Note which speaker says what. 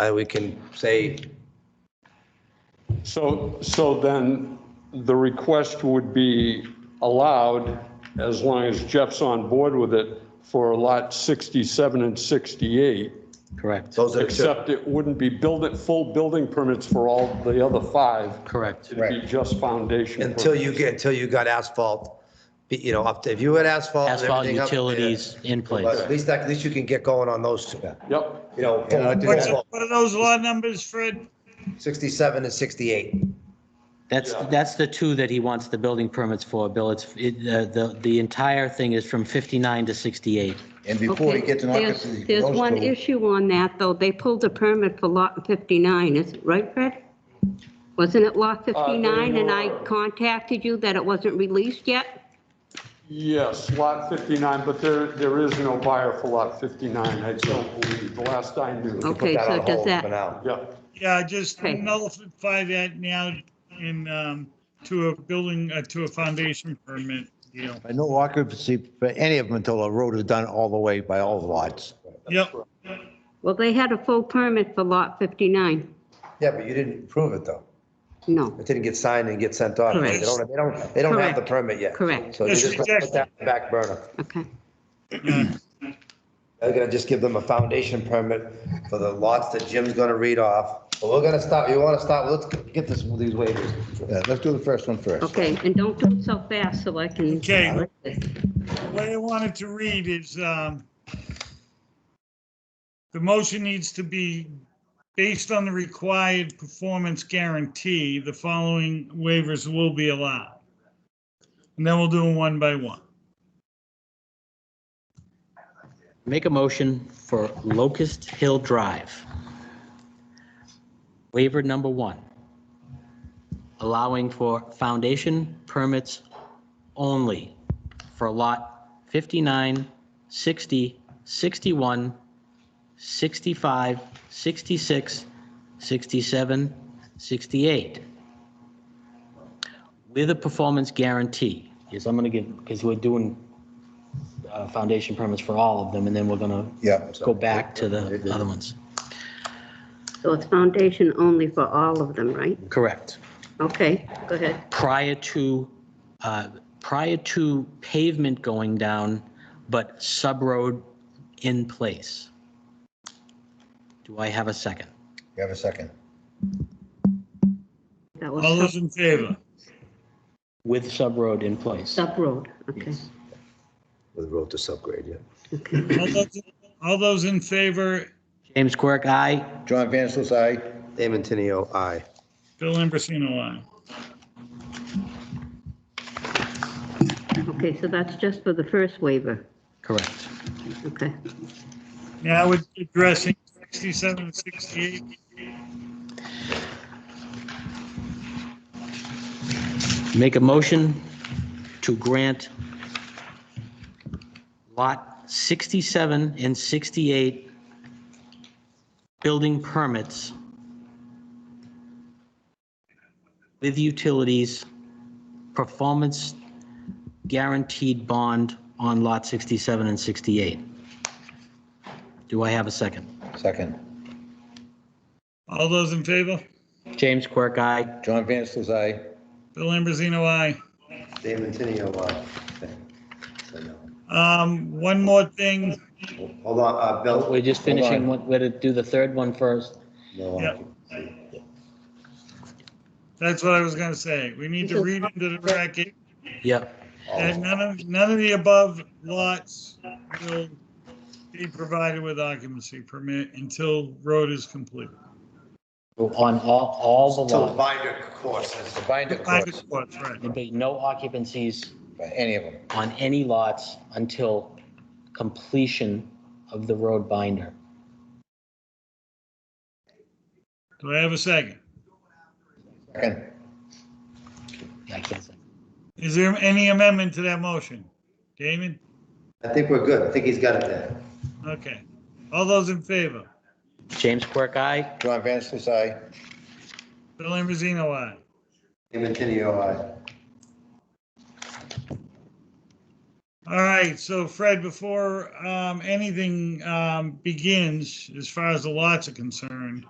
Speaker 1: Uh, we can say,
Speaker 2: So, so then the request would be allowed, as long as Jeff's on board with it, for lot 67 and 68,
Speaker 3: Correct,
Speaker 1: those are,
Speaker 2: except it wouldn't be build it, full building permits for all the other five.
Speaker 3: correct.
Speaker 2: It'd be just foundation.
Speaker 1: until
Speaker 2: permits.
Speaker 1: you get, until you got asphalt, be- you know, up to, if you had asphalt. and
Speaker 3: Asphalt
Speaker 1: everything up there,
Speaker 3: utilities in
Speaker 1: But
Speaker 3: place.
Speaker 1: at least, that- at least you can get going on those, two,
Speaker 2: Yep,
Speaker 1: you know,
Speaker 4: What's,
Speaker 1: asphalt,
Speaker 4: what are those law numbers, Fred?
Speaker 1: 67 and 68.
Speaker 3: That's, that's the two that he wants the building permits for, Bill. It's, it, uh, the, the entire thing is from 59 to 68.
Speaker 5: And before he
Speaker 6: Okay,
Speaker 5: gets an
Speaker 6: there's-
Speaker 5: occupancy.
Speaker 6: There's
Speaker 5: those
Speaker 6: one
Speaker 5: two-
Speaker 6: issue on that, though. They pulled a permit for lot 59, is it right, Fred? Wasn't it
Speaker 5: Uh,
Speaker 6: lot 59, and I
Speaker 2: were-
Speaker 6: contacted you that it wasn't released yet?
Speaker 2: yes, lot 59, but there, there is no buyer for lot 59, I don't believe, the last I knew.
Speaker 1: Put
Speaker 6: Okay,
Speaker 1: that
Speaker 6: so
Speaker 1: on
Speaker 6: does
Speaker 1: hold For
Speaker 6: that,
Speaker 1: now.
Speaker 2: Yeah,
Speaker 4: Yeah, just
Speaker 6: Okay.
Speaker 4: nullify that now in, um, to a building, uh, to a foundation permit deal.
Speaker 5: Uh, No occupancy for any of them until a road is done all the way by all the lots.
Speaker 4: Yep,
Speaker 6: well, they had a full permit for lot 59.
Speaker 1: Yeah, but you didn't prove it, though.
Speaker 6: No,
Speaker 1: It didn't get signed and get sent off. They
Speaker 6: Correct.
Speaker 1: don't, they don't, they don't have the
Speaker 6: Correct.
Speaker 1: permit yet.
Speaker 6: Correct.
Speaker 1: So you
Speaker 4: Yes,
Speaker 1: just put that on the back burner.
Speaker 6: okay.
Speaker 4: yeah.
Speaker 1: They're gonna just give them a foundation permit for the lots that Jim's gonna read off. But we're gonna stop, you wanna stop, let's get this, these waivers.
Speaker 5: Yeah, let's do the first one first.
Speaker 6: Okay, and don't do it so fast so I can.
Speaker 4: Okay. What I wanted to read is, um, the motion needs to be based on the required performance guarantee, the following waivers will be allowed. And then we'll do them one by one.
Speaker 3: Make a motion for Locust Hill Drive. Waiver number one, allowing for foundation permits only for lot 59, 60, 61, 65, 66, 67, 68. With a performance guarantee, Yes, I'm going to give, because we're doing uh, foundation permits for all of them, and then we're going to
Speaker 5: Yeah.
Speaker 3: go back to the other ones.
Speaker 6: So it's foundation only for all of them, right?
Speaker 3: Correct.
Speaker 6: Okay, go ahead.
Speaker 3: Prior to, uh, prior to pavement going down, but sub-road in place. Do I have a second?
Speaker 5: You have a second.
Speaker 6: That
Speaker 4: All
Speaker 6: was
Speaker 4: those in favor?
Speaker 3: With sub-road in place.
Speaker 6: sub-road, okay.
Speaker 1: With road to subgrade, yeah.
Speaker 4: All those- All those in favor,
Speaker 3: James Quirk, aye.
Speaker 5: John Vansel's aye.
Speaker 1: Damon Tenio, aye.
Speaker 4: Bill Ambrosino, aye.
Speaker 6: Okay, so that's just for the first waiver,
Speaker 3: Correct.
Speaker 6: okay.
Speaker 4: Now we're addressing 67 and 68.
Speaker 3: Make a motion to grant lot 67 and 68 building permits with utilities, performance guaranteed bond on lot 67 and 68. Do I have a second?
Speaker 5: Second.
Speaker 4: All those in favor?
Speaker 3: James Quirk, aye.
Speaker 5: John Vansel's aye.
Speaker 4: Bill Ambrosino, aye.
Speaker 1: Damon Tenio, aye.
Speaker 4: Um, one more thing.
Speaker 1: Hold on, uh, Bill.
Speaker 3: We're just
Speaker 5: Hold on.
Speaker 3: finishing, what- we're to do the third one first.
Speaker 5: No
Speaker 4: Yeah.
Speaker 5: occupancy.
Speaker 4: That's what I was gonna say. We need to read into the record
Speaker 3: Yep.
Speaker 4: that none of, none of the above lots will be provided with occupancy permit until road is complete.
Speaker 3: On all, all the
Speaker 1: Till
Speaker 3: lots.
Speaker 1: the binder courses.
Speaker 5: The binder
Speaker 4: Private
Speaker 5: courts,
Speaker 4: spots, right.
Speaker 3: There'd be no occupancies
Speaker 5: for any of them.
Speaker 3: on any lots until completion of the road binder.
Speaker 4: Do I have a second?
Speaker 5: Second.
Speaker 3: Yeah, I can't say.
Speaker 4: Is there any amendment to that motion? Damon?
Speaker 1: I think we're good. I think he's got it there.
Speaker 4: Okay. All those in favor?
Speaker 3: James Quirk, aye.
Speaker 5: John Vansel's aye.
Speaker 4: Bill Ambrosino, aye.
Speaker 1: Damon Tenio, aye.
Speaker 4: All right, so Fred, before um, anything um, begins, as far as the lots are concerned,